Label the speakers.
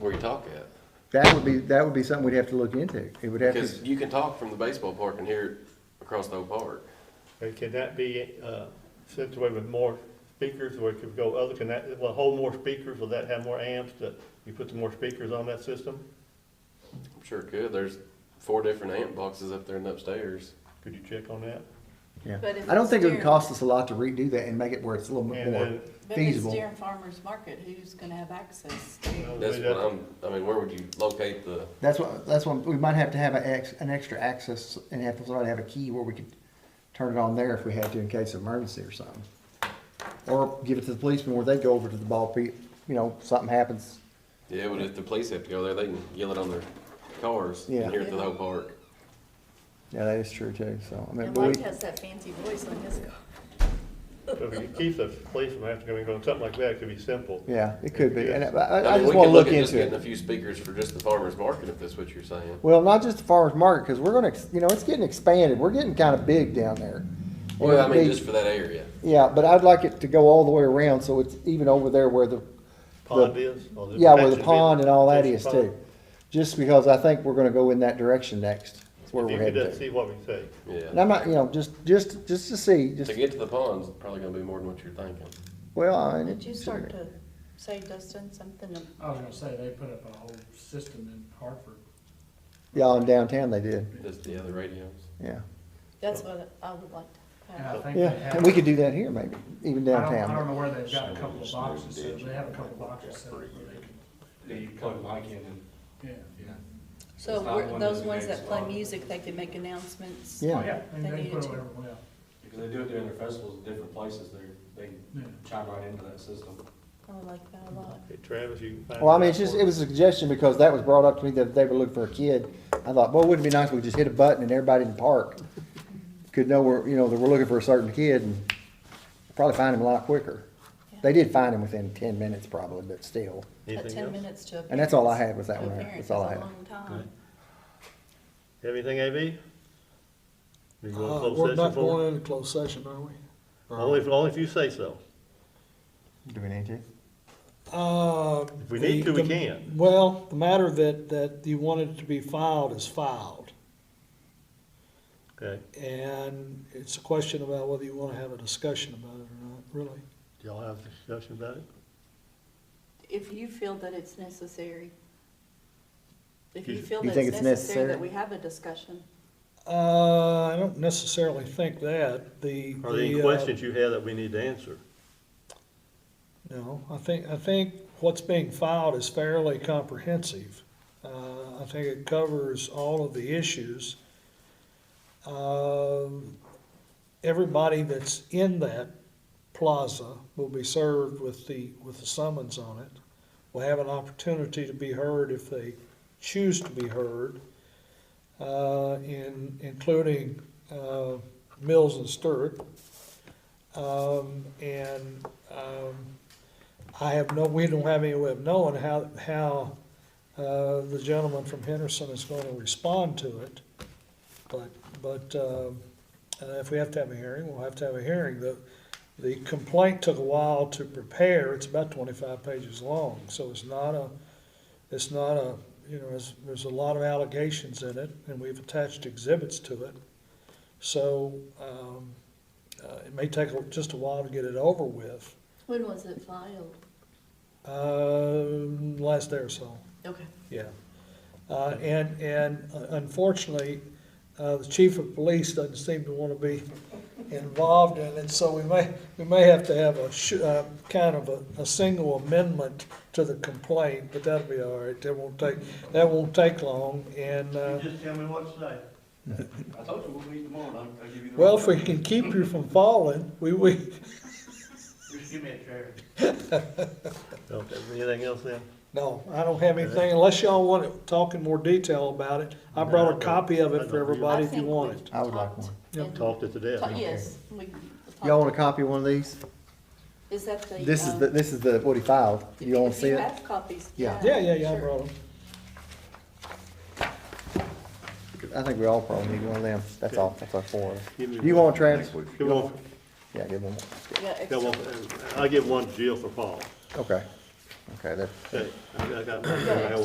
Speaker 1: where you talk at.
Speaker 2: That would be, that would be something we'd have to look into. It would have
Speaker 1: Because
Speaker 2: to,
Speaker 1: you can talk from the baseball park and hear it across the whole park.
Speaker 3: And can that be, uh, situated with more speakers, or it could go other, can that, will it hold more speakers, will that have more amps, that you put the more speakers on that system?
Speaker 1: I'm sure it could. There's four different amp boxes up there and upstairs.
Speaker 3: Could you check on that?
Speaker 2: yeah.
Speaker 4: But if
Speaker 2: I don't
Speaker 4: it's
Speaker 2: think it would
Speaker 4: steering-
Speaker 2: cost us a lot to redo that and make it where it's a little bit
Speaker 3: And
Speaker 2: more
Speaker 3: then-
Speaker 4: But if it's
Speaker 2: feasible.
Speaker 4: during farmer's market, who's gonna have access to?
Speaker 1: That's what I'm, I mean, where would you locate the,
Speaker 2: That's what, that's what, we might have to have an ex, an extra access and have to, sort of have a key where we could turn it on there if we had to in case of emergency or something. Or give it to the policeman where they go over to the ball pit, you know, something happens.
Speaker 1: yeah, but if the police have to go there, they can yell it on their cars
Speaker 2: Yeah.
Speaker 1: and hear it through the whole park.
Speaker 2: Yeah, that is true too, so, I mean,
Speaker 4: And
Speaker 2: but
Speaker 4: Mike
Speaker 2: we,
Speaker 4: has that fancy voice on his car.
Speaker 3: If it keeps the police from having to go and go, something like that, it could be simple.
Speaker 2: yeah, it could be, and I,
Speaker 1: I
Speaker 2: I- I
Speaker 1: mean,
Speaker 2: just
Speaker 1: we
Speaker 2: wanna
Speaker 1: could
Speaker 2: look
Speaker 1: at just
Speaker 2: into
Speaker 1: getting a
Speaker 2: it.
Speaker 1: few speakers for just the farmer's market, if that's what you're saying.
Speaker 2: Well, not just the farmer's market, cause we're gonna, ex- you know, it's getting expanded, we're getting kinda big down there.
Speaker 1: Well, I
Speaker 2: It'd
Speaker 1: mean,
Speaker 2: be-
Speaker 1: just for that area.
Speaker 2: Yeah, but I'd like it to go all the way around, so it's even over there where the,
Speaker 3: Pond is? or the
Speaker 2: yeah, where the
Speaker 3: patches is-
Speaker 2: pond and all that is
Speaker 3: patches pond.
Speaker 2: too. Just because I think we're gonna go in that direction next, It's where
Speaker 3: If
Speaker 2: we're
Speaker 3: you could
Speaker 2: headed
Speaker 3: just
Speaker 2: to.
Speaker 3: see what we say.
Speaker 2: And
Speaker 1: Yeah.
Speaker 2: I'm not, you know, just, just, just to see, just,
Speaker 1: To get to the ponds, probably gonna be more than what you're thinking.
Speaker 2: well, I mean.
Speaker 4: Did you
Speaker 2: it's-
Speaker 4: start to say, Dustin, something? of-
Speaker 5: I was gonna say, they put up a whole system in Hartford.
Speaker 2: Yeah, in downtown they did,
Speaker 1: Just the other radios.
Speaker 2: yeah,
Speaker 4: That's what I would like to
Speaker 5: And I
Speaker 4: have.
Speaker 5: think they
Speaker 2: yeah,
Speaker 5: have.
Speaker 2: and we could do that here maybe, even
Speaker 5: I don't, I don't
Speaker 2: downtown.
Speaker 5: know where they've got a couple of boxes, set up. they have a couple of boxes set up where they can,
Speaker 6: that you plug like in and.
Speaker 5: yeah.
Speaker 4: So
Speaker 6: It's not
Speaker 4: we're-
Speaker 6: one
Speaker 4: those
Speaker 6: that
Speaker 4: ones
Speaker 6: makes
Speaker 4: that play
Speaker 6: a lot.
Speaker 4: music, they can make announcements.
Speaker 2: Yeah.
Speaker 5: Oh, yeah, and
Speaker 4: They
Speaker 5: they can
Speaker 4: need
Speaker 5: put
Speaker 4: to.
Speaker 5: it wherever, well,
Speaker 6: Because they do it during their festivals in different places, they, they
Speaker 5: yeah.
Speaker 6: chime right into that system.
Speaker 4: I would like that a lot.
Speaker 3: Hey, Travis, you. find
Speaker 2: Well, I mean,
Speaker 3: out
Speaker 2: it's just,
Speaker 3: for
Speaker 2: it
Speaker 3: us.
Speaker 2: was a suggestion because that was brought up to me that they were looking for a kid. I thought, boy, wouldn't it be nice if we just hit a button and everybody in the park could know we're, you know, that we're looking for a certain kid and probably find him a lot quicker. They did find him within ten minutes probably, but still.
Speaker 4: But
Speaker 3: Anything
Speaker 4: ten
Speaker 3: else?
Speaker 4: minutes to a
Speaker 2: And that's all I
Speaker 4: parent's-
Speaker 2: had was that
Speaker 4: to a
Speaker 2: one.
Speaker 4: parent
Speaker 2: That's all
Speaker 4: is
Speaker 2: I
Speaker 4: a
Speaker 2: had.
Speaker 4: long time.
Speaker 3: You have Anything, AB? You
Speaker 7: Uh,
Speaker 3: want closed
Speaker 7: We're
Speaker 3: session
Speaker 7: not
Speaker 3: for?
Speaker 7: going into closed session, are we?
Speaker 3: Only if, only if you say so.
Speaker 2: Do we need to?
Speaker 7: Uh,
Speaker 3: If we need
Speaker 7: the-
Speaker 3: to, we
Speaker 7: the-
Speaker 3: can.
Speaker 7: Well, the matter that, that you wanted to be filed is filed.
Speaker 3: Okay.
Speaker 7: And it's a question about whether you want to have a discussion about it or not, really.
Speaker 3: Do y'all have a discussion about it?
Speaker 4: If you feel that it's necessary. If you
Speaker 3: You-
Speaker 4: feel
Speaker 2: You
Speaker 4: that
Speaker 2: think
Speaker 4: it's
Speaker 2: it's
Speaker 4: necessary that
Speaker 2: necessary?
Speaker 4: we have a discussion.
Speaker 7: Uh, I don't necessarily think that, the.
Speaker 3: Are there any
Speaker 7: the, uh,
Speaker 3: questions you have that we need to answer?
Speaker 7: No, I think, I think what's being filed is fairly comprehensive. Uh, I think it covers all of the issues. Um, Everybody that's in that plaza will be served with the, with the summons on it. Will have an opportunity to be heard if they choose to be heard, uh, in, including, uh, Mills and Stewart. Um, and, um, I have no, we don't have any way of knowing how, how, uh, the gentleman from Henderson is gonna respond to it. But, but, um, uh, if we have to have a hearing, we'll have to have a hearing. The, the complaint took a while to prepare. It's about twenty-five pages long, so it's not a, it's not a, you know, there's, there's a lot of allegations in it, and we've attached exhibits to it. So, um, uh, it may take a- just a while to get it over with.
Speaker 4: When was it filed?
Speaker 7: Um, last day or so,
Speaker 4: Okay.
Speaker 7: yeah. Uh, and, and unfortunately, uh, the chief of police doesn't seem to want to be involved in it, so we may, we may have to have a sh- uh, kind of a, a single amendment to the complaint, but that'll be all right, that won't take, that won't take long, and, uh,
Speaker 8: Just tell me what to say.
Speaker 6: I told you, we'll meet tomorrow, I'll, I'll give you the.
Speaker 7: well, if we can keep you from falling, we, we,
Speaker 8: Just give me a chair.
Speaker 3: Okay, anything else then?
Speaker 7: No, I don't have anything, unless y'all want to talk in more detail about it. I brought a copy of it for everybody if you want it.
Speaker 2: I would like one.
Speaker 3: Talked it to death.
Speaker 4: Ta- Yes. we
Speaker 2: Y'all want a
Speaker 4: talked.
Speaker 2: copy of one of these?
Speaker 4: Is that the?
Speaker 2: This is
Speaker 4: um,
Speaker 2: the, this is the, what he filed.
Speaker 4: if
Speaker 2: You wanna
Speaker 4: if
Speaker 2: see
Speaker 4: you
Speaker 2: it?
Speaker 4: have copies.
Speaker 2: Yeah.
Speaker 7: Yeah, yeah, yeah, I
Speaker 4: sure.
Speaker 7: brought them.
Speaker 2: I think we all probably need one of them. That's all, that's our four.
Speaker 3: Give me
Speaker 2: You
Speaker 3: one.
Speaker 2: want Travis? You
Speaker 3: Give one,
Speaker 2: want- Yeah, give him one.
Speaker 4: Yeah,
Speaker 3: give
Speaker 4: extra.
Speaker 3: one, I'll give one to Jill for Paul.
Speaker 2: Okay. Okay, that,
Speaker 3: Okay, I I got my-